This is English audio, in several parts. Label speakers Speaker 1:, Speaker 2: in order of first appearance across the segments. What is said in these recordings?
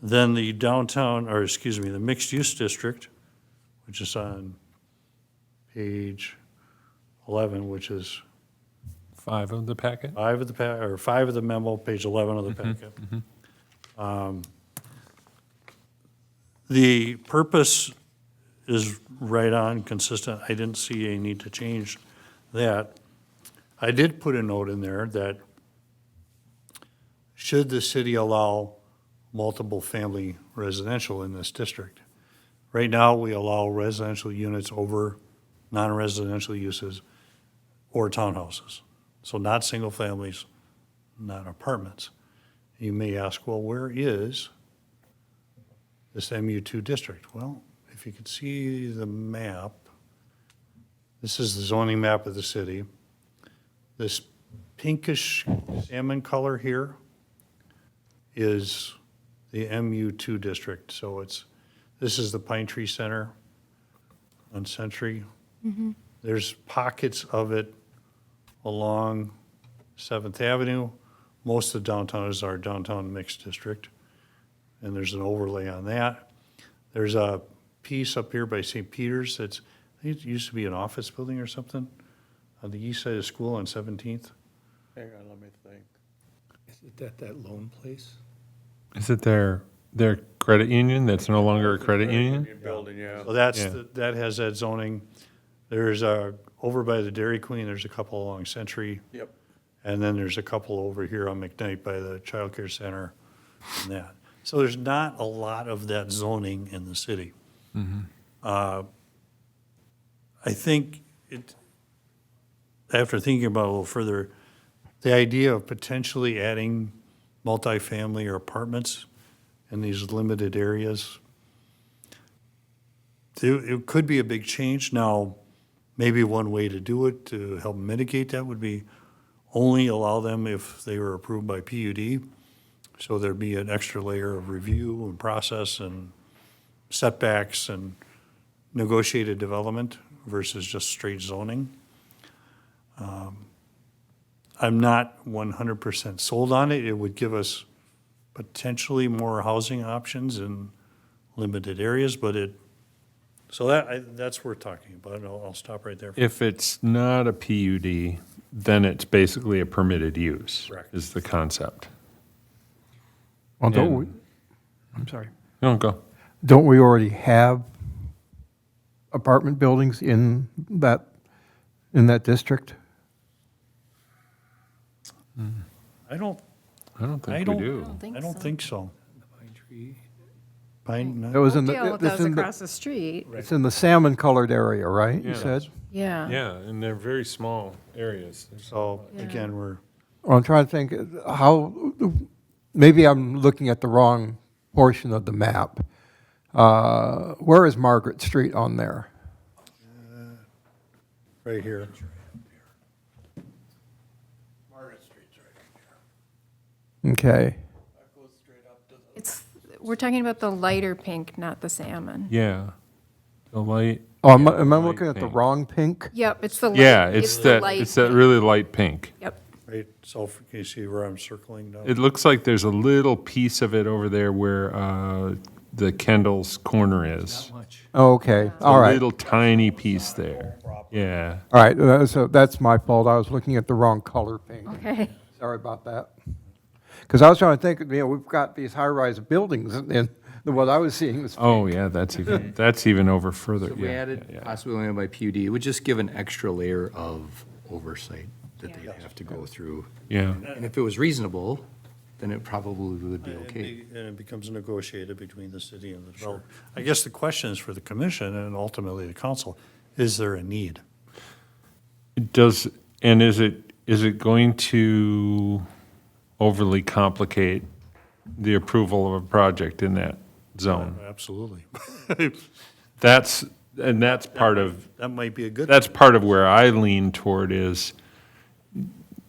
Speaker 1: Then the downtown, or excuse me, the mixed-use district, which is on page 11, which is
Speaker 2: Five of the packet?
Speaker 1: five of the, pa- or five of the memo, page 11 of the packet. Um, The purpose is right on, consistent. I didn't see a need to change that. I did put a note in there that should the city allow multiple-family residential in this district? Right now, we allow residential units over non-residential uses or townhouses. So not single families, not apartments. You may ask, well, where is this MU2 district? Well, if you could see the map, this is the zoning map of the city. This pinkish salmon color here is the MU2 district. So it's, this is the Pine Tree Center on Century. There's pockets of it along Seventh Avenue. Most of downtown is our downtown mixed district, and there's an overlay on that. There's a piece up here by St. Peter's that's, I think it used to be an office building or something, on the east side of school on Seventeenth.
Speaker 3: Hang on, let me think.
Speaker 4: Is it that, that lone place?
Speaker 2: Is it their, their credit union that's no longer a credit union?
Speaker 3: Building, yeah.
Speaker 1: So that's,
Speaker 2: Yeah.
Speaker 1: the- that has that zoning. There's a, over by the Dairy Queen, there's a couple along Century,
Speaker 3: Yep.
Speaker 1: and then there's a couple over here on McKnight by the Child Care center and that. So there's not a lot of that zoning in the city. Uh, I think it, after thinking about it a little further, the idea of potentially adding multifamily or apartments in these limited areas, it, it could be a big change. Now, maybe one way to do it to help mitigate that would be only allow them if they were approved by PUD. So there'd be an extra layer of review and process and setbacks and negotiated development versus just straight zoning. Um, I'm not 100% sold on it. It would give us potentially more housing options in limited areas, but it, so that, I- that's worth talking about. and I'll I'll stop right there.
Speaker 2: If it's not a PUD, then it's basically a permitted use.
Speaker 1: Correct.
Speaker 2: Is the concept.
Speaker 5: Well, don't we,
Speaker 2: And-
Speaker 5: I'm sorry,
Speaker 2: No, go.
Speaker 5: don't we already have apartment buildings in that, in that district?
Speaker 1: I don't,
Speaker 2: I don't
Speaker 1: I
Speaker 2: think we
Speaker 1: don't-
Speaker 2: do.
Speaker 1: I don't think so.
Speaker 4: Pine Tree.
Speaker 1: Pine, no.
Speaker 5: That was in
Speaker 6: Oakdale,
Speaker 5: the,
Speaker 6: if that
Speaker 5: it's
Speaker 6: was
Speaker 5: in
Speaker 6: across
Speaker 5: the,
Speaker 6: the street.
Speaker 5: it's in the salmon colored area, right?
Speaker 2: Yeah.
Speaker 5: You said?
Speaker 6: Yeah.
Speaker 2: Yeah, and they're very small areas.
Speaker 1: So again, we're,
Speaker 5: Well, I'm trying to think uh, how, maybe I'm looking at the wrong portion of the map. Uh, Where is Margaret Street on there?
Speaker 1: right here.
Speaker 5: Okay.
Speaker 6: It's, we're talking about the lighter pink, not the salmon.
Speaker 2: Yeah. The light,
Speaker 5: Oh, am I, am I
Speaker 2: light
Speaker 5: looking at the
Speaker 2: pink.
Speaker 5: wrong pink?
Speaker 6: Yep, it's the. light-
Speaker 2: yeah, it's
Speaker 6: the
Speaker 2: that,
Speaker 6: light
Speaker 2: it's that
Speaker 6: pink.
Speaker 2: really light pink.
Speaker 6: Yep.
Speaker 1: Right, so if- can you see where I'm circling now?
Speaker 2: It looks like there's a little piece of it over there where, uh, the Kendall's corner is.
Speaker 4: Much.
Speaker 5: Oh, Okay, all
Speaker 2: A
Speaker 5: right.
Speaker 2: little tiny piece there. Yeah.
Speaker 5: All right, uh, so that's my fault. I was looking at the wrong color pink.
Speaker 6: Okay.
Speaker 5: Sorry about that. Because I was trying to think, you know, we've got these high-rise buildings, and and what I was seeing was,
Speaker 2: Oh, yeah, that's even, that's even over further.
Speaker 7: So we
Speaker 2: yeah,
Speaker 7: added
Speaker 2: yeah, yeah.
Speaker 7: possibly only by PUD, it would just give an extra layer of oversight that
Speaker 6: Yeah.
Speaker 7: they'd have to go through.
Speaker 2: Yeah,
Speaker 7: And if it was reasonable, then it probably would be okay.
Speaker 1: And it becomes negotiated between the city and the developer. I guess the question is for the commission and ultimately the council, is there a need?
Speaker 2: It does, and is it, is it going to overly complicate the approval of a project in that zone?
Speaker 1: Absolutely.
Speaker 2: That's, and that's part of,
Speaker 1: That might be a good.
Speaker 2: that's part of where I lean toward is,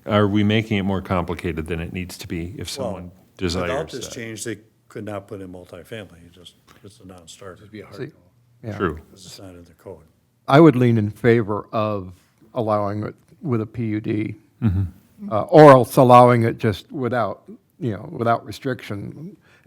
Speaker 2: are we making it more complicated than it needs to be if someone
Speaker 1: Without
Speaker 2: desires
Speaker 1: this
Speaker 2: that?
Speaker 1: change, they could not put in multifamily, It just, it's a non-starter,
Speaker 7: Be a hard no.
Speaker 5: yeah.
Speaker 2: True.
Speaker 1: because it's not in the code.
Speaker 5: I would lean in favor of allowing it with a
Speaker 2: Mm-hmm.
Speaker 5: PUD. Uh, Or else allowing it just without, you know, without restriction.